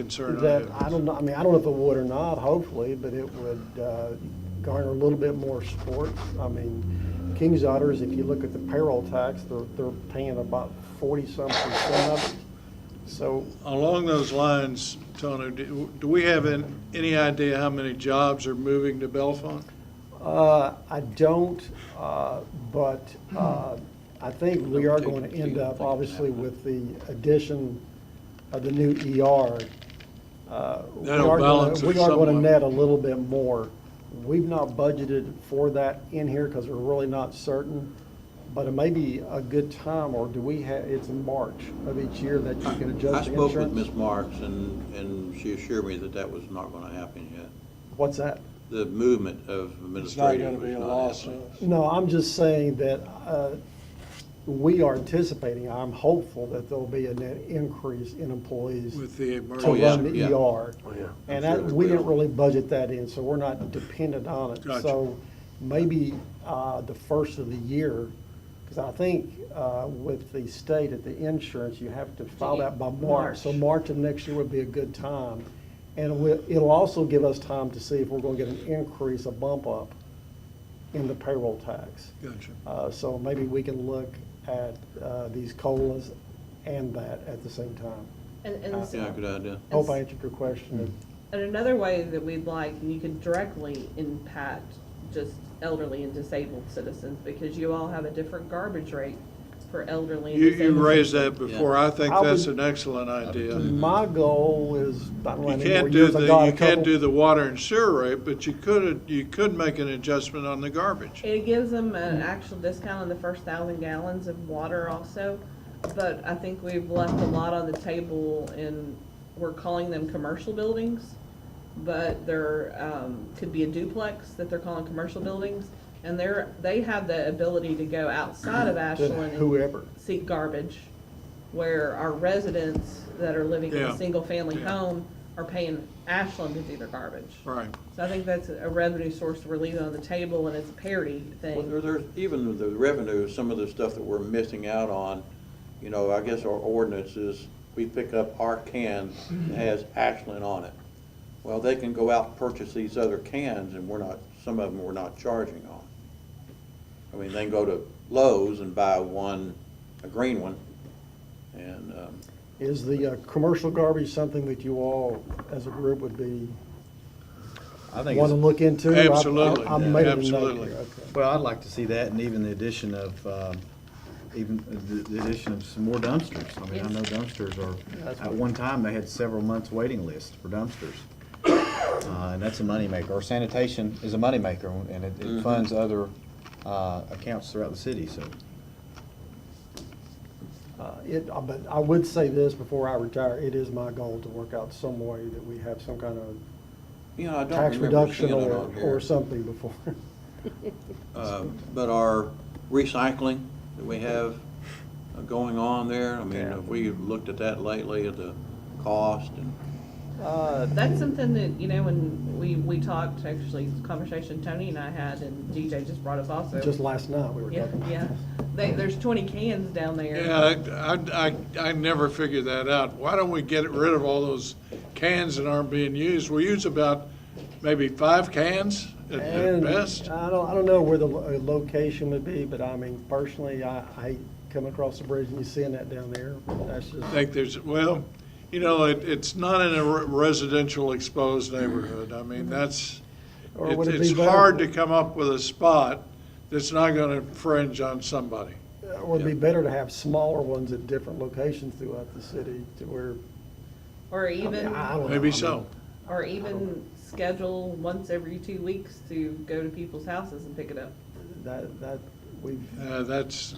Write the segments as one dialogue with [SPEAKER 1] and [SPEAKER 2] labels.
[SPEAKER 1] concern I
[SPEAKER 2] That, I
[SPEAKER 1] have.
[SPEAKER 2] don't know, I mean, I don't know if it would or not, hopefully, but it would uh, garner a little bit more support. I mean, King's Otters, if you look at the payroll tax, they're, they're paying about forty-some percent of it. So
[SPEAKER 1] Along those lines, Tony, do do we have an- any idea how many jobs are moving to Bellefonte?
[SPEAKER 2] Uh, I don't, uh, but uh, I think we are going to end up, obviously, with the addition of the new ER. uh, we
[SPEAKER 1] That'll
[SPEAKER 2] are gonna-
[SPEAKER 1] balance it
[SPEAKER 2] We are going to
[SPEAKER 1] somewhat.
[SPEAKER 2] net a little bit more. We've not budgeted for that in here because we're really not certain, but it may be a good time, or do we have, it's in March of each year that you can
[SPEAKER 3] I
[SPEAKER 2] adjust the
[SPEAKER 3] spoke with Ms.
[SPEAKER 2] insurance?
[SPEAKER 3] Marks, and, and she assured me that that was not going to happen yet.
[SPEAKER 2] What's that?
[SPEAKER 3] The movement of
[SPEAKER 1] It's not going
[SPEAKER 3] administrative
[SPEAKER 1] to be
[SPEAKER 3] was
[SPEAKER 1] a
[SPEAKER 3] not
[SPEAKER 1] loss.
[SPEAKER 3] happening.
[SPEAKER 2] No, I'm just saying that uh, we are anticipating, I'm hopeful that there'll be a net increase in employees
[SPEAKER 1] With the
[SPEAKER 2] to
[SPEAKER 3] Oh,
[SPEAKER 1] emergency.
[SPEAKER 3] yeah,
[SPEAKER 2] run the
[SPEAKER 3] yeah.
[SPEAKER 2] ER.
[SPEAKER 4] yeah.
[SPEAKER 2] And
[SPEAKER 3] I'm
[SPEAKER 2] that,
[SPEAKER 3] sure there
[SPEAKER 2] we didn't
[SPEAKER 3] will.
[SPEAKER 2] really budget that in, so we're not dependent on it.
[SPEAKER 1] Gotcha.
[SPEAKER 2] So maybe uh, the first of the year, because I think uh, with the state at the insurance, you have to file that by March. So March of next year would be a good time. And it will- it'll also give us time to see if we're going to get an increase, a bump up in the payroll tax.
[SPEAKER 1] Gotcha.
[SPEAKER 2] Uh, So maybe we can look at uh, these COLAs and that at the same time.
[SPEAKER 5] And,
[SPEAKER 1] Uh,
[SPEAKER 5] and, s-
[SPEAKER 3] Yeah, good idea.
[SPEAKER 2] Hope I answered your question.
[SPEAKER 5] and another way that we'd like, you could directly impact just elderly and disabled citizens, because you all have a different garbage rate for elderly and
[SPEAKER 1] You,
[SPEAKER 5] disabled.
[SPEAKER 1] you raised
[SPEAKER 5] citizens.
[SPEAKER 1] that before. I think
[SPEAKER 2] I
[SPEAKER 1] that's
[SPEAKER 2] would-
[SPEAKER 1] an excellent idea. You
[SPEAKER 2] My goal is, I don't know, how many more
[SPEAKER 1] can't do
[SPEAKER 2] years I got,
[SPEAKER 1] the,
[SPEAKER 2] a
[SPEAKER 1] you can't
[SPEAKER 2] couple.
[SPEAKER 1] do the water and sewer rate, but you could, you could make an adjustment on the garbage.
[SPEAKER 5] It gives them an actual discount on the first thousand gallons of water also, but I think we've left a lot on the table in, we're calling them commercial buildings, but there, um, could be a duplex that they're calling commercial buildings, and they're, they have the ability to go outside of
[SPEAKER 2] to
[SPEAKER 5] Ashland and
[SPEAKER 2] Whoever.
[SPEAKER 5] seek garbage, where our residents that are living in
[SPEAKER 1] Yeah.
[SPEAKER 5] a single-family
[SPEAKER 1] Yeah.
[SPEAKER 5] home are paying Ashland to do their garbage.
[SPEAKER 1] Right.
[SPEAKER 5] So I think that's a revenue source we're leaving on the table, and it's a parity
[SPEAKER 3] Well,
[SPEAKER 5] thing.
[SPEAKER 3] there, there's, even the revenue, some of the stuff that we're missing out on, you know, I guess our ordinance is, we pick up our can
[SPEAKER 2] Mm-hmm.
[SPEAKER 3] that has Ashland on it. Well, they can go out and purchase these other cans, and we're not, some of them we're not charging on. I mean, they can go to Lowe's and buy one, a green one, and, um,
[SPEAKER 2] Is the uh, commercial garbage something that you all, as a group, would be,
[SPEAKER 6] I think,
[SPEAKER 2] want to
[SPEAKER 6] it's-
[SPEAKER 2] look into? I- I-
[SPEAKER 1] Absolutely,
[SPEAKER 2] I made it a note
[SPEAKER 1] absolutely.
[SPEAKER 2] here, okay.
[SPEAKER 6] well, I'd like to see that and even the addition of, um, even the the addition of some more dumpsters. I mean, I know dumpsters are, at one time, they had several months waiting list for dumpsters. Uh, And that's a moneymaker. Or sanitation is a moneymaker and it- it funds other uh, accounts throughout the city, so.
[SPEAKER 2] Uh, It, uh, but I would say this before I retire, it is my goal to work out some way that we have some kind of
[SPEAKER 3] you know, I don't
[SPEAKER 2] tax
[SPEAKER 3] remember
[SPEAKER 2] reduction
[SPEAKER 3] seeing it
[SPEAKER 2] or,
[SPEAKER 3] on here.
[SPEAKER 2] or something before.
[SPEAKER 3] Uh, But our recycling that we have uh, going on there, I mean, if we looked at that lately, at the cost and,
[SPEAKER 2] Uh,
[SPEAKER 5] That's something that, you know, when we, we talked, actually, conversation Tony and I had, and DJ just brought us also.
[SPEAKER 2] Just last night, we were
[SPEAKER 5] Yeah,
[SPEAKER 2] talking about
[SPEAKER 5] yeah. They, there's twenty cans down there.
[SPEAKER 1] Yeah, I, I, I never figured that out. Why don't we get rid of all those cans that aren't being used? We use about maybe five cans at- at
[SPEAKER 2] And
[SPEAKER 1] best.
[SPEAKER 2] I don't, I don't know where the lo- uh, location would be, but I mean, personally, I, I come across the bridge and you seeing that down there, that's just.
[SPEAKER 1] I think there's, well, you know, it, it's not in a re- residential exposed neighborhood. I mean, that's,
[SPEAKER 2] Or
[SPEAKER 1] it's
[SPEAKER 2] would it
[SPEAKER 1] it's
[SPEAKER 2] be better-
[SPEAKER 1] hard to come up with a spot that's not gonna infringe on somebody.
[SPEAKER 2] Or it'd be better to have smaller ones at different locations throughout the city to where,
[SPEAKER 5] Or
[SPEAKER 2] I mean,
[SPEAKER 5] even,
[SPEAKER 2] I don't know. I
[SPEAKER 1] Maybe
[SPEAKER 2] mean,
[SPEAKER 1] so.
[SPEAKER 5] or even schedule once every two weeks to go to people's houses and pick it up.
[SPEAKER 2] That, that, we've,
[SPEAKER 1] Uh, that's,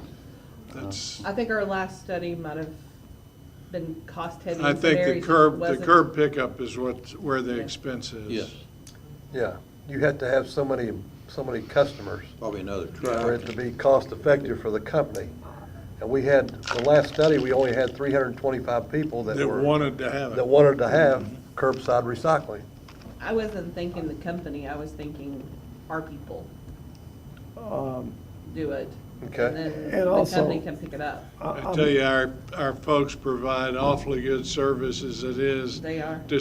[SPEAKER 1] that's,
[SPEAKER 5] I think our last study might have been cost heavy.
[SPEAKER 1] I
[SPEAKER 5] in some
[SPEAKER 1] think the
[SPEAKER 5] areas,
[SPEAKER 1] curb, the
[SPEAKER 5] wasn't-
[SPEAKER 1] curb pickup is what, where the
[SPEAKER 5] Yeah.
[SPEAKER 1] expense is.
[SPEAKER 3] yes,
[SPEAKER 4] Yeah, you had to have so many, so many customers
[SPEAKER 3] probably another
[SPEAKER 4] for it
[SPEAKER 3] truck.
[SPEAKER 4] to be cost-effective for the company. And we had, the last study, we only had 325 people that
[SPEAKER 1] That
[SPEAKER 4] were,
[SPEAKER 1] wanted to have it.
[SPEAKER 4] that wanted to have curbside recycling.
[SPEAKER 5] I wasn't thinking the company, I was thinking our people
[SPEAKER 2] um,
[SPEAKER 5] do it.
[SPEAKER 4] Okay.
[SPEAKER 5] and then
[SPEAKER 2] And
[SPEAKER 5] the
[SPEAKER 2] also-
[SPEAKER 5] company can pick it up.
[SPEAKER 1] I tell you, our, our folks provide awfully good service as it is.
[SPEAKER 5] They are.
[SPEAKER 1] to